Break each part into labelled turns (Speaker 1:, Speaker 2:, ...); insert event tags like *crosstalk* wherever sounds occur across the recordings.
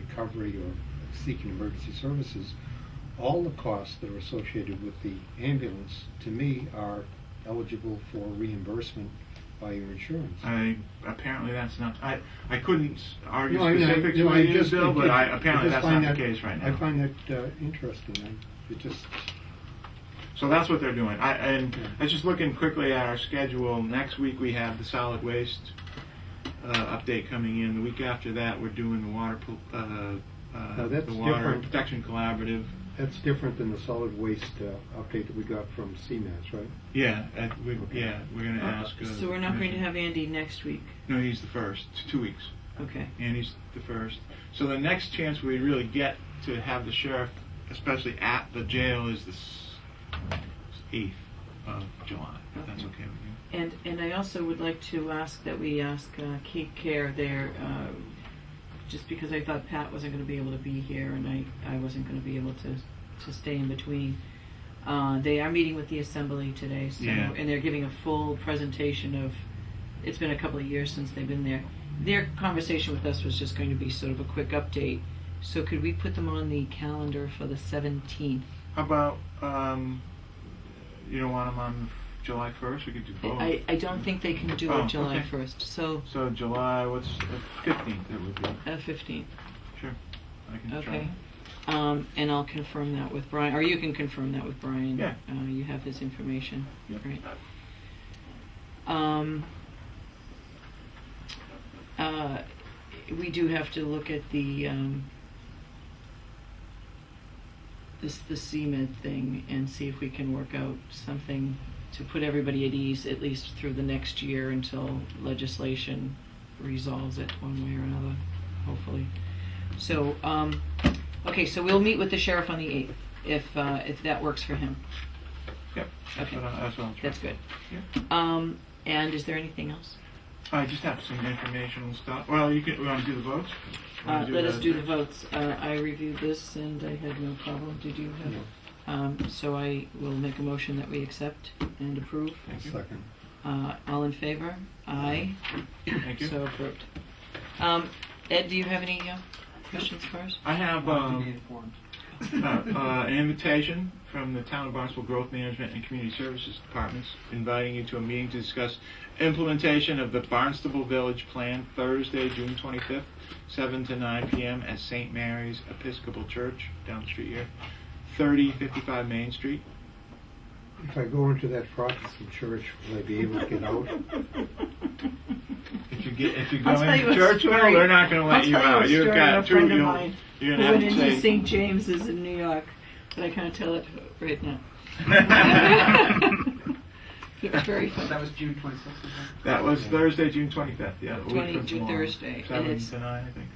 Speaker 1: recovery or seeking emergency services, all the costs that are associated with the ambulance, to me, are eligible for reimbursement by your insurance.
Speaker 2: I apparently that's not. I I couldn't argue
Speaker 1: No, I mean, I-
Speaker 2: specifics
Speaker 1: no, I
Speaker 2: with you,
Speaker 1: just-
Speaker 2: Bill, but I,
Speaker 1: just
Speaker 2: apparently that's
Speaker 1: find
Speaker 2: not the
Speaker 1: that-
Speaker 2: case right now.
Speaker 1: I find that uh, interesting. I, it just,
Speaker 2: So that's what they're doing. I, and
Speaker 1: Yeah.
Speaker 2: I was just looking quickly at our schedule. Next week we have the solid waste uh, update coming in. The week after that we're doing the water pol- uh, uh,
Speaker 1: No, that's
Speaker 2: the water
Speaker 1: different.
Speaker 2: protection collaborative.
Speaker 1: that's different than the solid waste uh, update that we got from CMAS, right?
Speaker 2: Yeah, uh we,
Speaker 1: Okay.
Speaker 2: yeah, we're going to ask. Uh,
Speaker 3: So we're not going to
Speaker 2: commission-
Speaker 3: have Andy next week.
Speaker 2: No, he's the first. It's two weeks.
Speaker 3: Okay.
Speaker 2: and he's the first. So the next chance we really get to have the sheriff, especially at the jail, is the eighth of July. If that's okay with you.
Speaker 3: And and I also would like to ask that we ask uh, Kate Care there, uh, just because I thought Pat wasn't going to be able to be here and I, I wasn't going to be able to, to stay in between. Uh, they are meeting with the assembly today, so
Speaker 2: Yeah.
Speaker 3: and they're giving a full presentation of. It's been a couple of years since they've been there. Their conversation with us was just going to be sort of a quick update. So could we put them on the calendar for the seventeenth?
Speaker 2: How about um, you don't want him on July first? We could do both.
Speaker 3: I, I don't think they can do
Speaker 2: Oh,
Speaker 3: it July
Speaker 2: okay.
Speaker 3: first. So
Speaker 2: So July, what's fifteenth? It would be.
Speaker 3: uh, fifteenth.
Speaker 2: Sure, I can try.
Speaker 3: Okay. Um, and I'll confirm that with Brian, or you can confirm that with Brian.
Speaker 2: Yeah.
Speaker 3: Uh, you have his information.
Speaker 2: Yep.
Speaker 3: Right. Um, uh, we do have to look at the, um, this, the CMed thing and see if we can work out something to put everybody at ease, at least through the next year until legislation resolves it one way or another, hopefully. So, um, okay, so we'll meet with the sheriff on the eighth, if, uh, if that works for him.
Speaker 2: Yep. That's
Speaker 3: Okay.
Speaker 2: what I, that's what I'll try.
Speaker 3: That's good.
Speaker 2: Yeah.
Speaker 3: Um, and is there anything else?
Speaker 2: I just have some informational stuff. Well, you can. We want to do the votes. We
Speaker 3: Uh,
Speaker 2: wanna
Speaker 3: let us do the
Speaker 2: next?
Speaker 3: votes. Uh, I reviewed this and I had no problem. Did you have?
Speaker 1: No.
Speaker 3: Um, so I will make a motion that we accept and approve.
Speaker 2: Thank you.
Speaker 1: Second.
Speaker 3: Uh, all in favor? Aye.
Speaker 2: Thank you.
Speaker 3: So approved. Um, Ed, do you have any uh, questions
Speaker 2: *laughs*
Speaker 3: for us?
Speaker 2: I have.
Speaker 4: Want
Speaker 2: Um,
Speaker 4: to be informed.
Speaker 2: uh, uh, an invitation from the Town of Barnstable Growth Management and Community Services Departments inviting you to a meeting to discuss implementation of the Barnstable Village Plan Thursday, June 25th, 7 to 9 p.m. at St. Mary's Episcopal Church down the street here, 3055 Main Street.
Speaker 1: If I go into that Protestant church, will I be able to get out?
Speaker 2: If you get if you go
Speaker 3: I'll tell you
Speaker 2: into
Speaker 3: a
Speaker 2: church, well,
Speaker 3: story.
Speaker 2: they're not going to let
Speaker 3: I'll
Speaker 2: you
Speaker 3: tell you a
Speaker 2: out. You've
Speaker 3: story of
Speaker 2: got
Speaker 3: a
Speaker 2: two.
Speaker 3: friend of
Speaker 2: You'll,
Speaker 3: mine
Speaker 2: you're
Speaker 3: We
Speaker 2: going
Speaker 3: went
Speaker 2: to have
Speaker 3: into
Speaker 2: to say.
Speaker 3: St. James's in New York, but I can't tell it right
Speaker 2: *laughs*
Speaker 3: now. *laughs* It was very
Speaker 4: So that
Speaker 3: fun.
Speaker 4: was June 26th. wasn't it?
Speaker 2: that was Thursday, June 25th. Yeah, a week
Speaker 3: 20
Speaker 2: from
Speaker 3: June
Speaker 2: tomorrow.
Speaker 3: Thursday, and
Speaker 2: Seven
Speaker 3: it's-
Speaker 2: to nine, I think.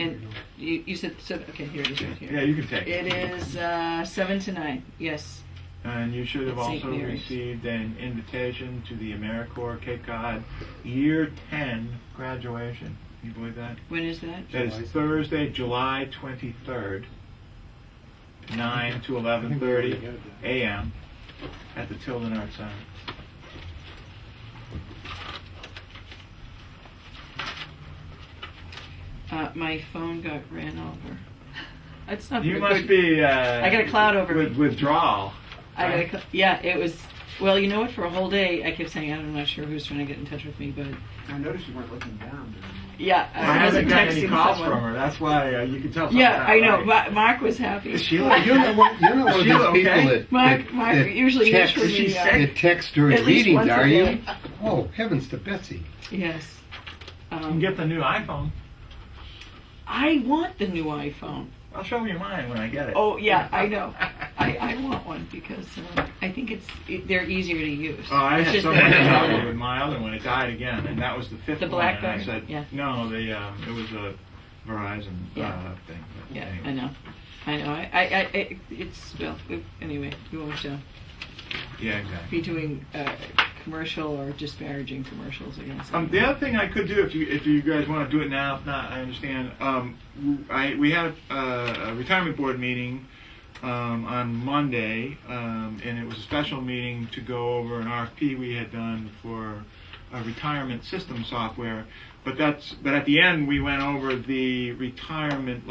Speaker 3: And you, you said, so, okay, here it is right
Speaker 2: Yeah,
Speaker 3: here.
Speaker 2: you can take it.
Speaker 3: It is uh, seven to nine, yes.
Speaker 2: And you should have
Speaker 3: At St.
Speaker 2: also
Speaker 3: Mary's.
Speaker 2: received an invitation to the AmeriCorps Cape Cod Year 10 graduation. Can you believe that?
Speaker 3: When is that?
Speaker 2: That
Speaker 1: July.
Speaker 2: is Thursday, July 23rd, 9 to
Speaker 1: I think we already
Speaker 2: 11:30
Speaker 1: had that.
Speaker 2: a.m. at the Tilden Arts Center.
Speaker 3: Uh, my phone got ran over. That's not
Speaker 2: You
Speaker 3: very
Speaker 2: must
Speaker 3: good.
Speaker 2: be. Uh,
Speaker 3: I got a cloud over
Speaker 2: with,
Speaker 3: me.
Speaker 2: Withdrawal.
Speaker 3: I got a, cl- yeah, it was. Well, you know what? For a whole day, I kept saying I'm not sure who's trying to get in touch with me, but
Speaker 4: I noticed you weren't looking down. during-
Speaker 3: yeah,
Speaker 2: I haven't
Speaker 3: wasn't
Speaker 2: got
Speaker 3: texting
Speaker 2: any calls
Speaker 3: someone.
Speaker 2: from her. That's why uh, you can tell. something's
Speaker 3: Yeah,
Speaker 2: not
Speaker 3: I know.
Speaker 2: right.
Speaker 3: Ma- Mark was happy.
Speaker 2: Sheila,
Speaker 1: You're
Speaker 3: *laughs*
Speaker 1: not one, you're not one of
Speaker 2: Sheila,
Speaker 1: these people
Speaker 2: okay?
Speaker 1: that,
Speaker 3: Mark-
Speaker 1: that,
Speaker 3: Mark
Speaker 1: that
Speaker 3: usually
Speaker 1: text,
Speaker 3: is really, uh,
Speaker 1: that text during
Speaker 3: at least
Speaker 1: meetings,
Speaker 3: once a
Speaker 1: are you?
Speaker 3: day.
Speaker 1: Oh, heavens to Betsy.
Speaker 3: Yes.
Speaker 2: You can
Speaker 3: Um,
Speaker 2: get the new iPhone.
Speaker 3: I want the new iPhone.
Speaker 2: I'll show you mine when I get it.
Speaker 3: Oh yeah, I know. I, I want one because uh, I think it's it, they're easier to use.
Speaker 2: Oh, I
Speaker 3: It's
Speaker 2: had
Speaker 3: just-
Speaker 2: so much trouble with my other one. It died again, and that was the fifth
Speaker 3: The
Speaker 2: one.
Speaker 3: Blackberry?
Speaker 2: And I said,
Speaker 3: Yeah.
Speaker 2: no, the um, it was a Verizon
Speaker 3: Yeah.
Speaker 2: uh, thing. But
Speaker 3: Yeah,
Speaker 2: anyway.
Speaker 3: I know. I know. I, I, I it, it's well. It, anyway, you won't uh,
Speaker 2: Yeah, exactly.
Speaker 3: be doing uh, commercial or disparaging commercials against.
Speaker 2: Um, the other thing I could do, if you if you guys want to do it now, if not, I understand. Um, w- I we had uh, a, a retirement board meeting um, on Monday, um, and it was a special meeting to go over an RFP we had done for a retirement system software. But that's but at the end we went over the retirement